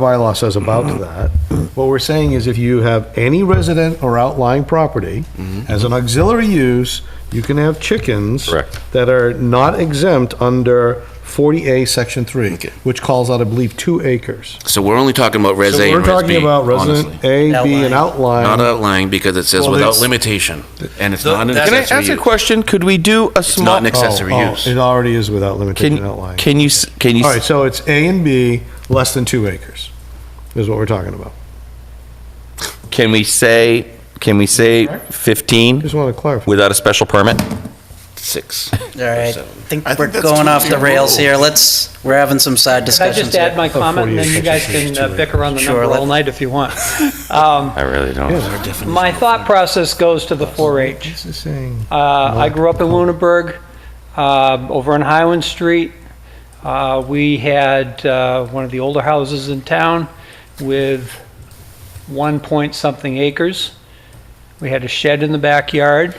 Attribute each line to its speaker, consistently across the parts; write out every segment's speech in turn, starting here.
Speaker 1: bylaw says about
Speaker 2: Mm-hmm.
Speaker 1: that. What we're saying is if you have any resident or outlying property
Speaker 2: Mm-hmm.
Speaker 1: as an auxiliary use, you can have chickens.
Speaker 3: Correct.
Speaker 1: That are not exempt under 40A, Section 3, which calls out, I believe, two acres.
Speaker 2: So we're only talking about Res
Speaker 1: So
Speaker 2: A
Speaker 1: we're
Speaker 2: and Res B,
Speaker 1: talking about
Speaker 2: honestly.
Speaker 1: resident A, B, and
Speaker 4: Outlying.
Speaker 2: Not
Speaker 1: outlying.
Speaker 2: outlying because it says
Speaker 1: Well,
Speaker 2: without
Speaker 1: it's-
Speaker 2: limitation, and it's
Speaker 3: So
Speaker 2: not an
Speaker 3: that's-
Speaker 2: accessory
Speaker 5: Can I
Speaker 2: use.
Speaker 5: ask a question? Could we do a
Speaker 2: It's not
Speaker 5: small?
Speaker 2: an accessory
Speaker 1: Oh, oh,
Speaker 2: use.
Speaker 1: It already is without limitation
Speaker 5: Can,
Speaker 1: outlying.
Speaker 5: can you, s- can you,
Speaker 1: All
Speaker 5: s-
Speaker 1: right, so it's A and B, less than two acres, is what we're talking about.
Speaker 5: can we say, can we say 15
Speaker 1: Just want to clarify.
Speaker 5: without a special permit?
Speaker 2: Six.
Speaker 4: All right, I
Speaker 2: So-
Speaker 4: think
Speaker 3: I think
Speaker 4: we're
Speaker 3: that's
Speaker 4: going off
Speaker 3: totally
Speaker 4: the rails
Speaker 3: wrong.
Speaker 4: here. Let's, we're having some side
Speaker 6: Can I
Speaker 4: discussions
Speaker 6: just
Speaker 4: here.
Speaker 6: add my comment, and then you
Speaker 1: 48
Speaker 6: guys
Speaker 1: inches
Speaker 6: can
Speaker 1: is
Speaker 6: uh,
Speaker 1: too
Speaker 6: bicker on the
Speaker 4: Sure,
Speaker 6: number all
Speaker 4: let-
Speaker 6: night if you want. Um,
Speaker 5: I really don't.
Speaker 1: Yeah,
Speaker 6: My thought process goes to the 4-H.
Speaker 1: this is saying,
Speaker 6: Uh, I grew up in Lunenburg, uh, over on Highland Street. Uh, We had uh, one of the older houses in town with one point something acres. We had a shed in the backyard.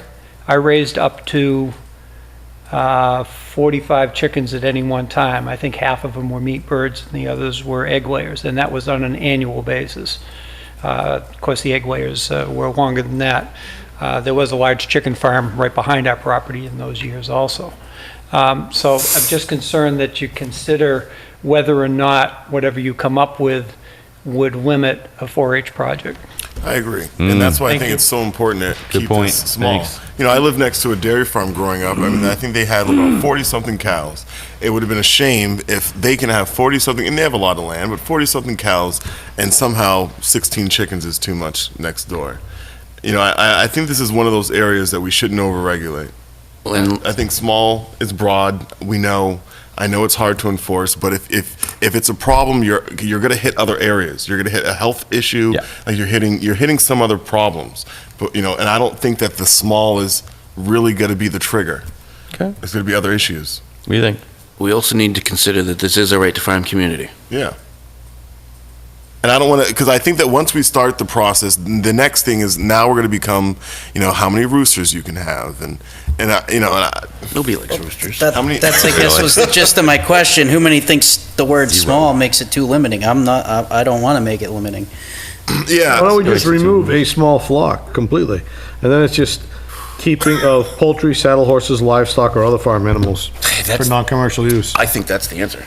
Speaker 6: I raised up to uh, 45 chickens at any one time. I think half of them were meat birds and the others were egg layers, and that was on an annual basis. Uh, Of course, the egg layers uh, were longer than that. Uh, There was a large chicken farm right behind our property in those years also. Um, So I'm just concerned that you consider whether or not whatever you come up with would limit a 4-H project.
Speaker 3: I agree, and that's why I
Speaker 6: Thank
Speaker 3: think
Speaker 6: you.
Speaker 3: it's so important to
Speaker 5: Good
Speaker 3: keep
Speaker 5: point.
Speaker 3: this small.
Speaker 5: Thanks.
Speaker 3: You know, I lived next to a dairy farm growing up. I mean, I think they had
Speaker 5: Mm.
Speaker 3: about forty something cows. It would have been a shame if they can have forty something, and they have a lot of land, but forty something cows, and somehow sixteen chickens is too much next door. You know, I- I, I think this is one of those areas that we shouldn't overregulate.
Speaker 2: And
Speaker 3: I think small is broad. We know. I know it's hard to enforce, but if, if, if it's a problem, you're you're going to hit other areas. You're going to hit a health issue.
Speaker 5: Yeah.
Speaker 3: Like you're hitting you're hitting some other problems. But you know, and I don't think that the small is really going to be the trigger.
Speaker 5: Okay.
Speaker 3: It's going to be other issues.
Speaker 5: What do you think?
Speaker 2: we also need to consider that this is a right to farm community.
Speaker 3: Yeah. And I don't want to, because I think that once we start the process, the next thing is now we're going to become, you know, how many roosters you can have, and and I, you know, and I,
Speaker 2: Nobody likes roosters.
Speaker 3: How many-
Speaker 4: That- That's, I guess, was the gist of my question. Who many thinks the word small makes it too limiting? I'm not, I, I don't want to make it limiting.
Speaker 3: yeah.
Speaker 1: Why don't we just remove a small flock completely? And then it's just keeping of poultry, saddle horses, livestock, or other farm animals for
Speaker 2: That's-
Speaker 1: non-commercial use.
Speaker 2: I think that's the answer.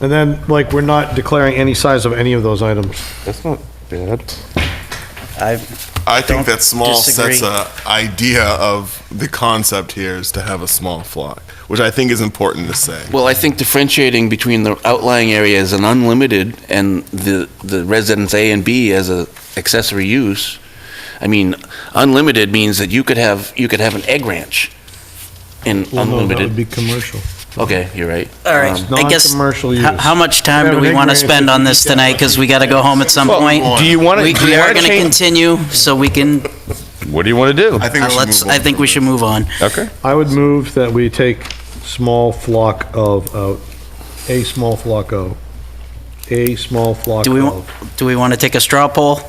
Speaker 1: And then, like, we're not declaring any size of any of those items.
Speaker 5: That's not bad.
Speaker 4: I,
Speaker 3: I think
Speaker 4: Don't
Speaker 3: that small sets
Speaker 4: disagree.
Speaker 3: a idea of the concept here is to have a small flock, which I think is important to say.
Speaker 2: Well, I think differentiating between the outlying area as an unlimited and the, the residence A and B as a accessory use, I mean, unlimited means that you could have, you could have an egg ranch in
Speaker 1: That would
Speaker 2: unlimited.
Speaker 1: be commercial.
Speaker 2: Okay, you're right.
Speaker 4: all right,
Speaker 2: Um,
Speaker 4: I guess,
Speaker 1: non-commercial
Speaker 4: how,
Speaker 1: use.
Speaker 4: how much time
Speaker 1: We
Speaker 4: do
Speaker 1: have
Speaker 4: we
Speaker 1: an
Speaker 4: want to
Speaker 1: ignorance
Speaker 4: spend
Speaker 1: if
Speaker 4: on
Speaker 1: we
Speaker 4: this
Speaker 1: can-
Speaker 4: tonight? Because we got to go home at some
Speaker 5: Well,
Speaker 4: point.
Speaker 5: do you wanna-
Speaker 4: We
Speaker 5: do you
Speaker 4: we are
Speaker 5: wanna
Speaker 4: going to
Speaker 5: change-
Speaker 4: continue, so we can, uh,
Speaker 5: What do you want to do?
Speaker 3: I think we should
Speaker 4: let's,
Speaker 3: move on
Speaker 4: I think
Speaker 3: from
Speaker 4: we
Speaker 3: this.
Speaker 4: should move on.
Speaker 5: Okay.
Speaker 1: I would move that we take small flock of, out, a small flock of, a small flock
Speaker 4: Do we, wa-
Speaker 1: of.
Speaker 4: do we want to take a straw poll?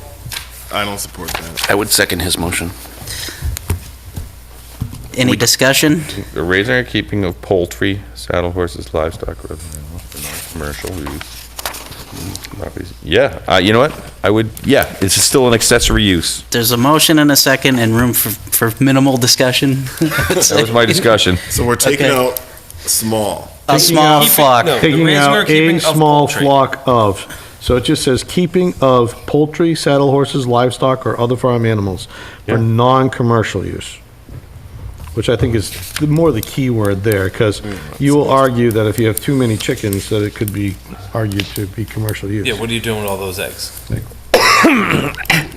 Speaker 3: I don't support that.
Speaker 2: I would second his motion.
Speaker 4: Any discussion?
Speaker 5: The raising or keeping of poultry, saddle horses, livestock, or other animals for non-commercial use. Properties- Yeah, uh, you know what? I would, yeah, it's still an accessory use.
Speaker 4: There's a motion and a second and room for, for minimal discussion.
Speaker 5: That was my discussion.
Speaker 3: So we're taking
Speaker 4: Okay.
Speaker 3: out small.
Speaker 4: A small
Speaker 1: Keeping
Speaker 4: flock.
Speaker 1: Taking out a small flock of. So it just says keeping of poultry, saddle horses, livestock, or other farm animals for
Speaker 5: Yeah.
Speaker 1: non-commercial use. Which I think is the- more the key word there, because you will argue that if you have too many chickens, that it could be argued to be commercial use.
Speaker 7: Yeah, what are you doing with all those eggs?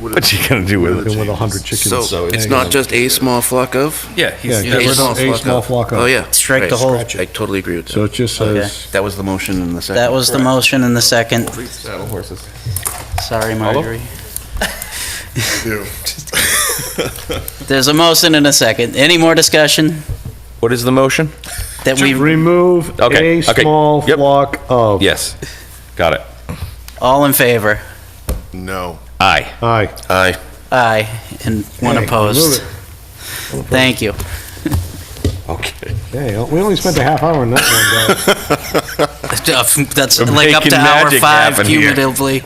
Speaker 5: What you gonna do with
Speaker 1: Than
Speaker 5: it?
Speaker 1: with 100 chickens.
Speaker 2: So it's not just a small flock of?
Speaker 7: Yeah,
Speaker 1: Yeah,
Speaker 7: he's,
Speaker 1: get rid of a small flock
Speaker 2: Oh,
Speaker 1: of.
Speaker 2: yeah.
Speaker 4: Strike the
Speaker 2: Right.
Speaker 4: whole-
Speaker 2: I totally agree with
Speaker 1: So
Speaker 2: that.
Speaker 1: it just
Speaker 4: Okay.
Speaker 1: says.
Speaker 2: That was the motion in the second.
Speaker 4: That was the motion and the second.
Speaker 5: Saddle horses.
Speaker 4: Sorry, Marjorie.
Speaker 3: Ew.
Speaker 4: There's a motion and a second. Any more discussion
Speaker 5: What is the motion?
Speaker 4: that we,
Speaker 1: Remove
Speaker 5: Okay,
Speaker 1: a
Speaker 5: okay,
Speaker 1: small
Speaker 5: yep.
Speaker 1: flock of.
Speaker 5: Yes, got it.
Speaker 4: all in favor?
Speaker 3: No.
Speaker 5: Aye.
Speaker 1: Aye.
Speaker 2: Aye.
Speaker 4: Aye, and one
Speaker 1: Hey, remove
Speaker 4: opposed.
Speaker 1: it.
Speaker 4: Thank you.
Speaker 5: Okay.
Speaker 1: Hey, we only spent a half hour on that one, guys.
Speaker 4: after, that's
Speaker 5: We're
Speaker 4: like up
Speaker 5: making
Speaker 4: to hour
Speaker 5: magic
Speaker 4: five
Speaker 5: happen here.
Speaker 4: cumulatively.